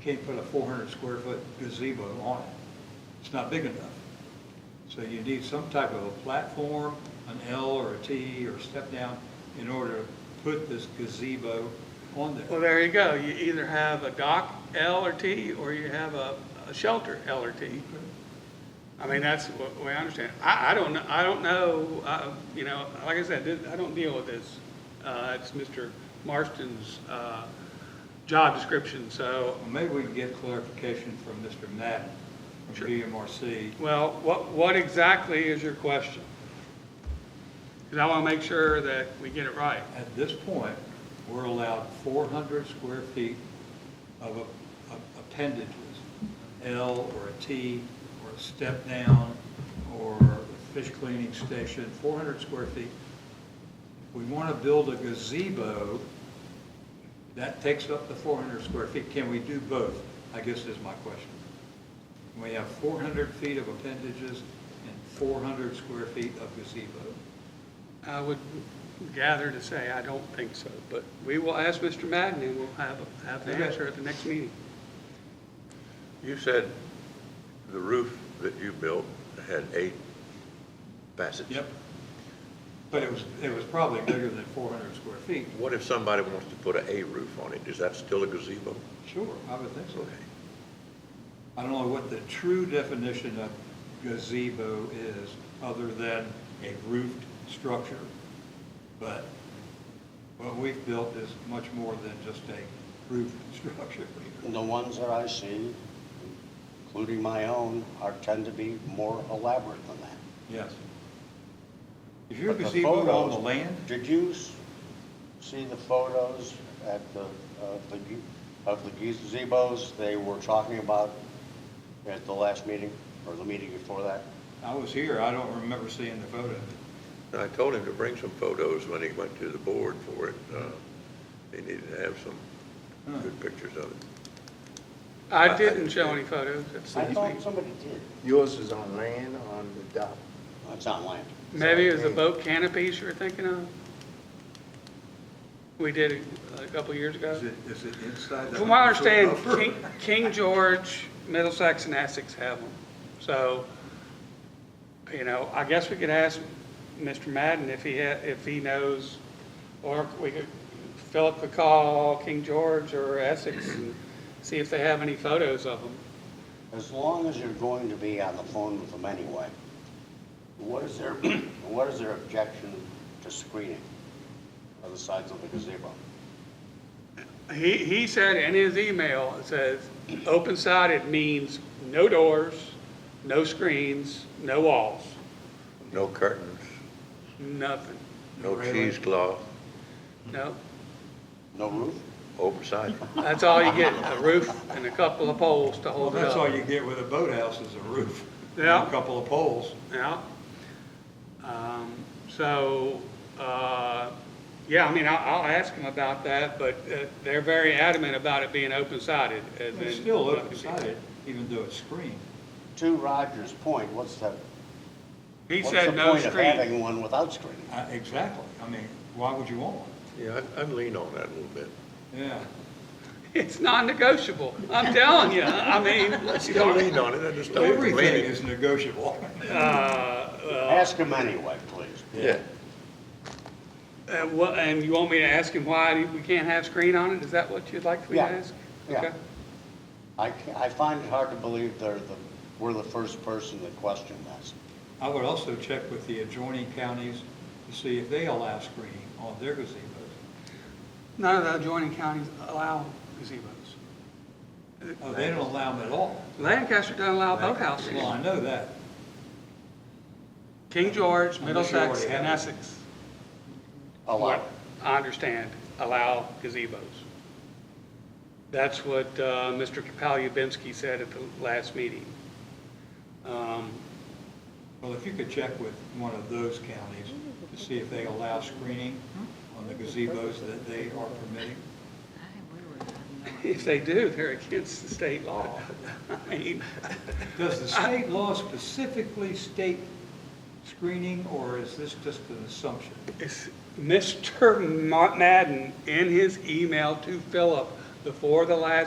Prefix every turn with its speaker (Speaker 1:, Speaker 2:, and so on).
Speaker 1: can't put a four hundred square foot gazebo on it. It's not big enough. So you need some type of a platform, an L or a T or step down in order to put this gazebo on there.
Speaker 2: Well, there you go. You either have a dock L or T, or you have a, a shelter L or T. I mean, that's what we understand. I, I don't know, I don't know, uh, you know, like I said, this- I don't deal with this. Uh, it's Mr. Marston's, uh, job description, so,
Speaker 1: Well, Maybe we can get clarification from Mr. Madden from
Speaker 2: Sure.
Speaker 1: BMRC.
Speaker 2: well, what, what exactly is your question? Because I want to make sure that we get it right.
Speaker 1: At this point, we're allowed 400 square feet of a- of appendages, L or a T or a step down or a fish cleaning station, 400 square feet. We want to build a gazebo, that takes up the 400 square feet. Can we do both? I guess is my question. We have 400 feet of appendages and 400 square feet of gazebo.
Speaker 2: I would gather to say, I don't think so, but we will ask Mr. Madden, and we'll have, have the
Speaker 1: Okay.
Speaker 2: answer at the next meeting.
Speaker 3: You said the roof that you built had eight facets.
Speaker 1: Yep. But it was, it was probably bigger than 400 square feet.
Speaker 3: What if somebody wants to put a A roof on it? Is that still a gazebo?
Speaker 1: Sure, I would think so.
Speaker 3: Okay.
Speaker 1: I don't know what the true definition of gazebo is, other than a roofed structure. But what we've built is much more than just a roofed structure.
Speaker 4: And the ones that I see, including my own, are, tend to be more elaborate than that.
Speaker 1: Yes. Is your
Speaker 4: But the
Speaker 1: gazebo on the
Speaker 4: photos-
Speaker 1: land?
Speaker 4: Did you s- see the photos at the, of the, ge- of the gazebos they were talking about at the last meeting, or the meeting before that?
Speaker 1: I was here, I don't remember seeing the photo.
Speaker 3: And I told him to bring some photos when he went to the board for it. Uh, He needed to have some good pictures of it.
Speaker 2: I didn't show any photos. That's
Speaker 4: I
Speaker 2: the
Speaker 4: thought
Speaker 2: thing.
Speaker 4: somebody did.
Speaker 5: Yours is on land on the dock.
Speaker 4: It's on land.
Speaker 2: Maybe it was the boat canopies you were thinking of? We did it a couple years ago.
Speaker 1: Is it, is it inside the?
Speaker 2: From what I understand,
Speaker 1: 100 foot buffer?
Speaker 2: King, King George, Middlesex, and Essex have them. So, you know, I guess we could ask Mr. Madden if he, ha- if he knows, or we could, Philip could call King George or Essex and see if they have any photos of them.
Speaker 4: As long as you're going to be on the phone with them anyway, what is their, what is their objection to screening on the sides of the gazebo?
Speaker 2: He, he said in his email, it says, open sided means no doors, no screens, no walls,
Speaker 3: No curtains,
Speaker 2: nothing,
Speaker 3: no
Speaker 1: Really?
Speaker 3: cheesecloth,
Speaker 2: no.
Speaker 4: No roof?
Speaker 3: oversized.
Speaker 2: That's all you get, a roof and a couple of poles to
Speaker 1: Well,
Speaker 2: hold it
Speaker 1: that's all
Speaker 2: up.
Speaker 1: you get with a boathouse is a roof. and
Speaker 2: Yeah.
Speaker 1: A couple of poles.
Speaker 2: Yeah. Um, so, uh, yeah, I mean, I'll, I'll ask them about that, but uh, they're very adamant about it being uh, open sided.
Speaker 1: It's still open sided, even though it's screened.
Speaker 4: To Roger's point, what's the,
Speaker 2: He
Speaker 4: what's
Speaker 2: said
Speaker 4: the
Speaker 2: no
Speaker 4: point of
Speaker 2: screen.
Speaker 4: having one without screening?
Speaker 1: Uh, Exactly. I mean, why would you want one?
Speaker 3: Yeah, I'd- I'd lean on that a little bit.
Speaker 1: Yeah.
Speaker 2: It's non-negotiable. I'm telling you. I mean, uh,
Speaker 3: You don't lean on it, I just don't.
Speaker 1: Everything is negotiable.
Speaker 4: Ask him anyway, please.
Speaker 3: Yeah.
Speaker 2: Uh, what, and you want me to ask him why we can't have screen on it? Is that what you'd like me to
Speaker 4: Yeah.
Speaker 2: ask?
Speaker 4: Yeah.
Speaker 2: Okay.
Speaker 4: I, ca- I find it hard to believe they're the, we're the first person that questioned this.
Speaker 1: I would also check with the adjoining counties to see if they allow screening on their gazebos.
Speaker 2: None of the adjoining counties allow gazebos.
Speaker 1: Oh, they don't allow them at all.
Speaker 2: Lancaster doesn't allow boathouses.
Speaker 1: Well, I know that.
Speaker 2: King George,
Speaker 1: I'm not sure what
Speaker 2: Middlesex,
Speaker 1: they have.
Speaker 2: and Essex.
Speaker 4: Allow,
Speaker 2: what I understand, allow gazebos. That's what uh, Mr. Palubinsky said at the last meeting. Um,
Speaker 1: Well, if you could check with one of those counties to see if they allow screening on the gazebos that they are permitting.
Speaker 2: If they do, they're against the state law. I mean,
Speaker 1: Does the state law specifically state screening, or is this just an assumption?
Speaker 2: It's- Mr. Ma- Madden, in his email to Philip before the last